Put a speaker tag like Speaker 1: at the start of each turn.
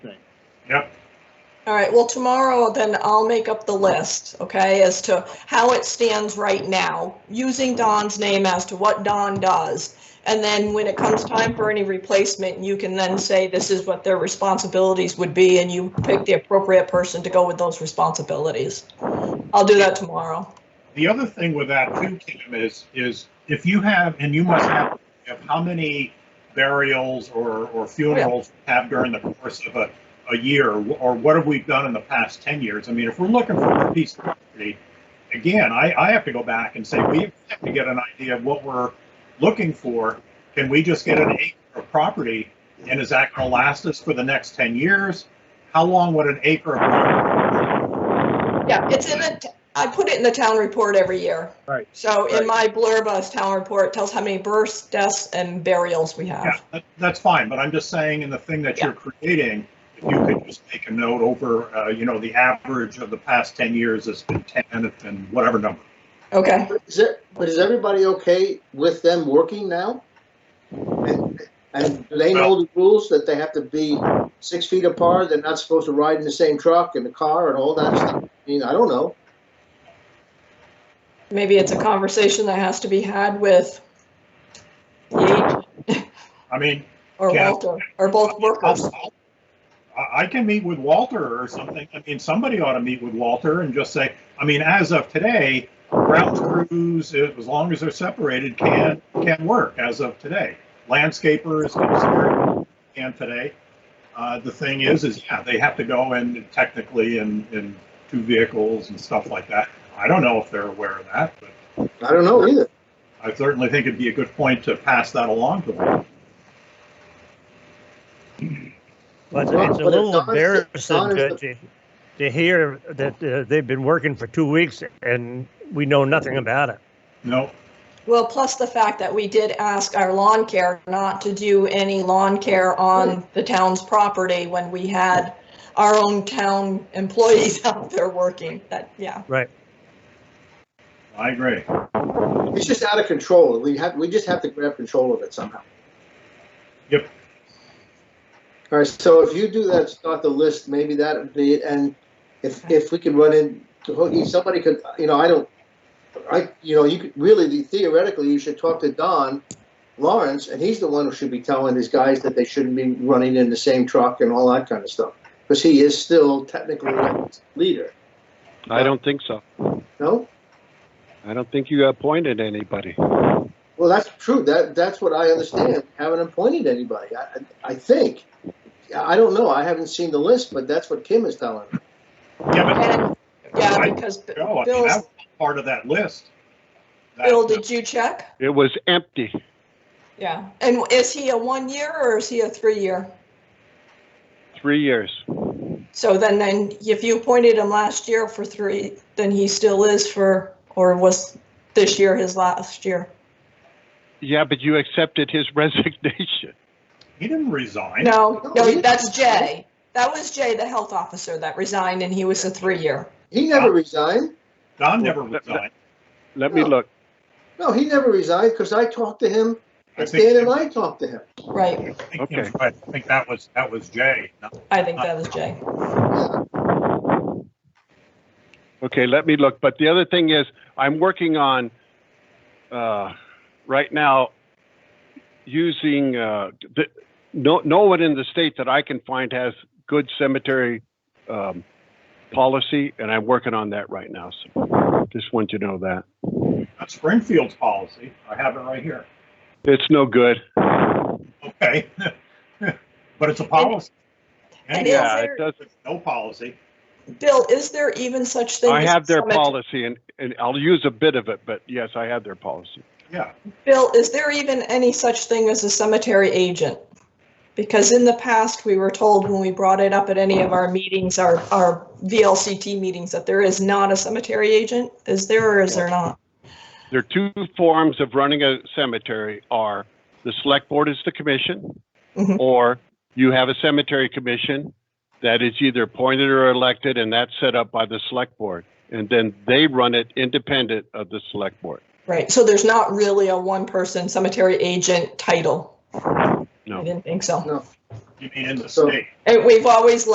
Speaker 1: All right, well, tomorrow, then I'll make up the list, okay, as to how it stands right now, using Don's name as to what Don does. And then when it comes time for any replacement, you can then say this is what their responsibilities would be, and you pick the appropriate person to go with those responsibilities. I'll do that tomorrow.
Speaker 2: The other thing with that too, Kim, is, is if you have, and you must have, have how many burials or, or funerals have during the course of a, a year, or what have we done in the past ten years? I mean, if we're looking for a piece of property, again, I, I have to go back and say, we have to get an idea of what we're looking for. Can we just get an acre of property, and is that gonna last us for the next ten years? How long would an acre of,
Speaker 1: Yeah, it's in the, t- I put it in the town report every year.
Speaker 3: Right.
Speaker 1: So in
Speaker 3: Right.
Speaker 1: my blurb as town report, it tells how many births, deaths, and burials we
Speaker 2: yeah,
Speaker 1: have.
Speaker 2: that- that's fine, but I'm just saying in the thing that you're creating, if you could just make a note over, uh, you know, the average of the past ten years has been ten and whatever number.
Speaker 1: Okay,
Speaker 4: But Is it, but is everybody okay with them working now? And, and do they know the rules that they have to be six feet apart, they're not supposed to ride in the same truck and the car and all that stuff? I mean, I don't know.
Speaker 1: maybe it's a conversation that has to be had with Yates
Speaker 2: I mean,
Speaker 1: or
Speaker 2: Yeah.
Speaker 1: Walter, or both workers.
Speaker 2: I, I can meet with Walter or something. I mean, somebody ought to meet with Walter and just say, I mean, as of today, ground crews, as long as they're separated, can, can work as of today. Landscapers can- can today. Uh, the thing is, is yeah, they have to go in technically in, in two vehicles and stuff like that. I don't know if they're aware of that, but
Speaker 4: I don't know either.
Speaker 2: I certainly think it'd be a good point to pass that along to them.
Speaker 4: Well,
Speaker 3: But it's a
Speaker 4: but if
Speaker 3: little
Speaker 4: Don's the-
Speaker 3: embarrassing
Speaker 4: Don is
Speaker 3: to,
Speaker 4: the-
Speaker 3: to, to hear that uh, they've been working for two weeks and we know nothing about it.
Speaker 2: No,
Speaker 1: Well, plus the fact that we did ask our lawn care not to do any lawn care
Speaker 2: Hmm.
Speaker 1: on the town's property when we had our own town employees out there working, that, yeah.
Speaker 2: I agree.
Speaker 4: It's just out of control. We have, we just have to grab control of it somehow.
Speaker 2: Yep.
Speaker 4: All right, so if you do that, start the list, maybe that would be it, and if, if we could run in, to Hoogie, somebody could, you know, I don't, I, you know, you could, really, theoretically, you should talk to Don Lawrence, and he's the one who should be telling these guys that they shouldn't be running in the same truck and all that kind of stuff, because he is still technically a leader,
Speaker 5: I don't think so.
Speaker 4: no?
Speaker 5: I don't think you appointed anybody.
Speaker 4: Well, that's true. That, that's what I understand. Haven't appointed anybody, I, I I think. I don't know. I haven't seen the list, but that's what Kim is telling me.
Speaker 2: Yeah, but
Speaker 1: And, yeah, because
Speaker 2: No, Oh, I mean,
Speaker 1: Bill's-
Speaker 2: that was part of that list. That-
Speaker 1: Bill, did you check?
Speaker 5: It was empty.
Speaker 1: Yeah. And is he a one-year or is he a three-year?
Speaker 5: Three years.
Speaker 1: So then, then if you appointed him last year for three, then he still is for, or was this year his last year?
Speaker 5: Yeah, but you accepted his resignation.
Speaker 2: He didn't resign.
Speaker 1: No,
Speaker 4: No,
Speaker 1: no,
Speaker 4: he-
Speaker 1: that's Jay. That was Jay, the health officer that resigned and he was a three-year.
Speaker 4: He
Speaker 2: Ah.
Speaker 4: never resigned.
Speaker 2: Don never resigned.
Speaker 5: Let me
Speaker 4: No.
Speaker 5: look.
Speaker 4: No, he never resigned because I talked to him.
Speaker 2: I
Speaker 4: Dan
Speaker 2: think,
Speaker 4: and I talked to him.
Speaker 1: Right,
Speaker 2: I think he was right. I think that was, that was Jay. No,
Speaker 1: I think that is Jay.
Speaker 4: Yeah.
Speaker 5: Okay, let me look. But the other thing is, I'm working on, uh, right now, using, uh, the, no, no one in the state that I can find has good cemetery, um, policy, and I'm working on that right now. So just want you to know that.
Speaker 2: That's Springfield's policy. I have it right here.
Speaker 5: It's no good.
Speaker 2: Okay. But it's a policy.
Speaker 1: And
Speaker 2: And
Speaker 1: is
Speaker 5: Yeah,
Speaker 1: there-
Speaker 5: it doesn't.
Speaker 2: no policy.
Speaker 1: Bill, is there even such thing?
Speaker 5: I
Speaker 1: as
Speaker 5: have their
Speaker 1: cemetery-
Speaker 5: policy and, and I'll use a bit of it, but yes, I have their policy.
Speaker 2: Yeah.
Speaker 1: Bill, is there even any such thing as a cemetery agent? Because in the past, we were told when we brought it up at any of our meetings, our, our VLCT meetings, that there is not a cemetery agent. Is there or is there not?
Speaker 5: There are two forms of running a cemetery are the select board is the commission
Speaker 1: Mhm.
Speaker 5: or you have a cemetery commission that is either appointed or elected and that's set up by the select board. And then they run it independent of the select board.
Speaker 1: Right, so there's not really a one-person cemetery agent title?
Speaker 5: No.
Speaker 1: I didn't think so.
Speaker 4: No.
Speaker 2: You mean in the
Speaker 4: So-
Speaker 2: state.
Speaker 1: And we've always